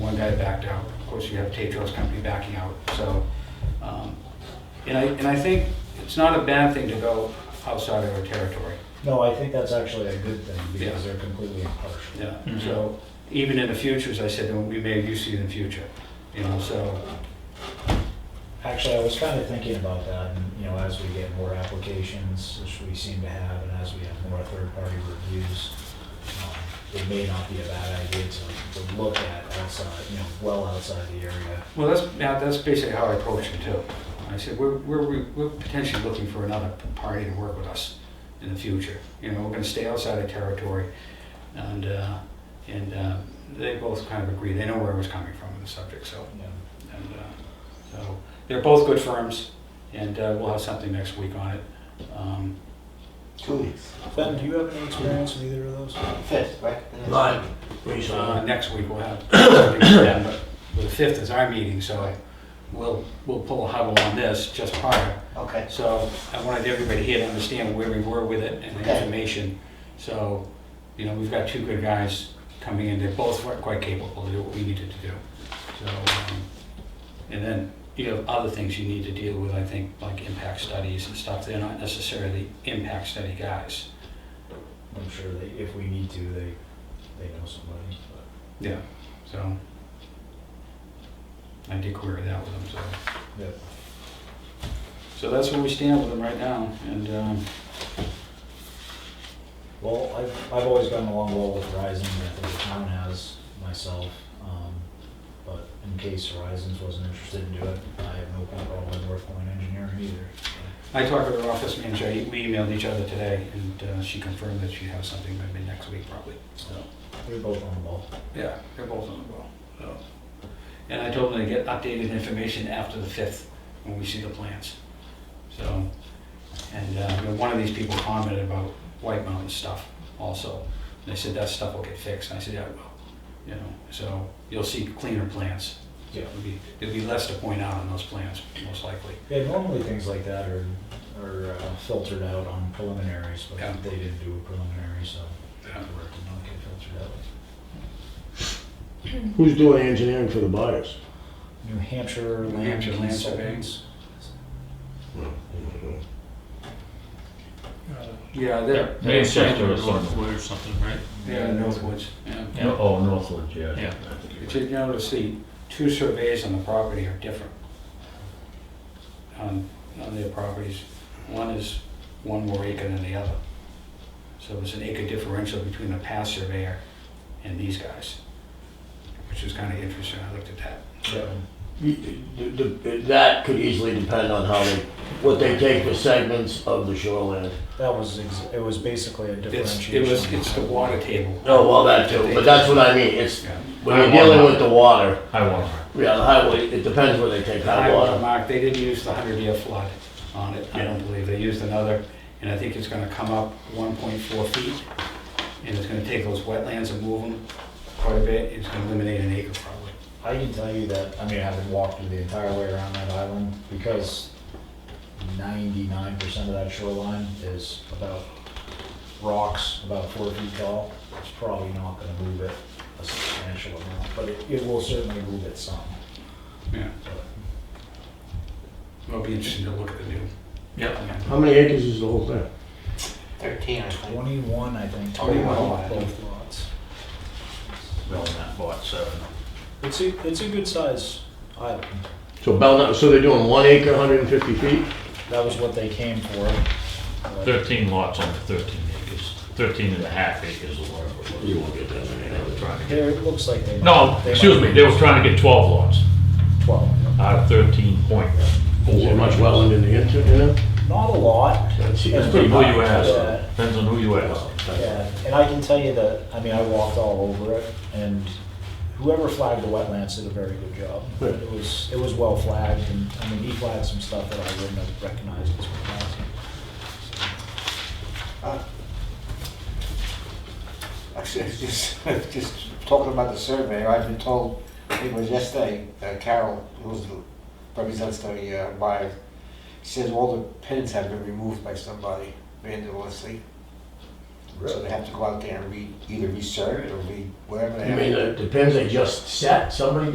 guy backed out. Of course, you have Tetros Company backing out, so. um, And I, and I think it's not a bad thing to go outside of our territory. No, I think that's actually a good thing because Yeah. they're completely impartial. Yeah, so even in the future, as I said, and we may use it in the future, you know, so, Actually, I was kind of thinking about that, and, you know, as we get more applications, which we seem to have, and as we have more third-party reviews, um, it may not be a bad idea to, to look at outside, you know, well outside the area. well, that's, yeah, that's basically how I approached it too. I said, we're, we're, we're potentially looking for another party to work with us in the future. You know, we're gonna stay outside of territory, and, uh, and, uh, they both kind of agree, they know where I was coming from on the subject, so, you know. and, uh, so, they're both good firms, and, uh, we'll have something next week on it. Um, Two weeks. Ben, do you have any experience with either of those? Fifth, right? The next Right. week. Uh, Recently. Next week we'll have, something then, but the 5th is our meeting, so I, we'll, we'll pull a huddle on this just prior. Okay. So I wanted everybody here to understand where we were with it and the Okay. information. So, you know, we've got two good guys coming in, they're both quite capable to do what we needed to do. So, um, and then you have other things you need to deal with, I think, like impact studies and stuff. They're not necessarily impact study guys. I'm sure they, if we need to, they, they know somebody, Yeah. So I did query that with them, so. but, yep. So that's where we stand with them right now, and, um, Well, I've, I've always gotten along well with Verizon, I think the town has myself. um, But in case Verizon's wasn't interested in doing it, I have no problem with North Point Engineering either. I talked with her office manager, I- we emailed each other today, and uh, she confirmed that she has something by mid next week probably, so. They're both on the ball. Yeah, they're both on the ball, so. And I told them to get updated information after the fifth, when we see the plans, so. And, uh, you know, one of these people commented about White Mountain stuff also, they said that stuff will get fixed, and I said, yeah, it will, you know, so you'll see cleaner plans. Yeah. There'll be, there'll be less to point out on those plans, most likely. Yeah, normally things like that are, are uh, filtered out on preliminaries, but Yeah. they didn't do a preliminary, so the Yeah. work did not get filtered out. Who's doing engineering for the buyers? New Hampshire New Land Hampshire Land Surveying. Consultants. Yeah, they're. Manchester or Northwood or something, right? They're in Northwoods, yeah. Yeah. Oh, Northwood, yeah. Yeah. But you notice the two surveys on the property are different. On, on their properties, one is one more acre than the other. So there's an acre differential between the past surveyor and these guys, which is kind of interesting, I looked at that. Yeah. You- the- the- That could easily depend on how they, what they take for segments of the shoreline. That was, ex- it was basically a It's, differentiation. it was, it's the water table. Oh, well, that too, but that's what I mean, it's, Yeah. when you're dealing with the water, High water. yeah, the highway, it depends where they take The high high water water. mark, they didn't use the hundred year flood on it, I don't believe, they used another, and I think it's gonna come up one point four feet, and it's gonna take those wetlands and move them quite a bit, it's gonna eliminate an acre probably. I can tell you that, I mean, having walked through the entire way around that island, because ninety-nine percent of that shoreline is about rocks, about four feet tall, it's probably not gonna move it a substantial amount, but it, it will certainly move it some. Yeah. It'll be interesting to look at the new. Yep. How many acres is the whole thing? Thirteen, I think. Twenty-one, I think. 21 lot. Both lots. Belknap bought seven. It's a, it's a good size island. So Belknap, so they're doing one acre, hundred and fifty feet? That was what they came for. but- Thirteen lots on thirteen acres, thirteen and a half acres or whatever it was. You won't get that many. They were trying to There, it looks like they. get- might- No, they excuse might- me, they were trying to get twelve lots Twelve. out of thirteen point four. Is there much wetland in the inter, you know? Not a lot. That's- Depends that's on pretty who you much, ask, yeah. depends on who you ask. Yeah, and I can tell you that, I mean, I walked all over it, and whoever flagged the wetlands did a very good job. Good. It was, it was well flagged, and, I mean, he flagged some stuff that I wouldn't have recognized as wetlands. Actually, I was just, I was just talking about the surveyor, I've been told, I think it was yesterday, uh, Carol, who's the, represents the uh, buyer, she says all the pins have been removed by somebody randomly. So they have to go out there and re, either resurvey it or re, whatever they You have. mean, to do. it depends, they just set, somebody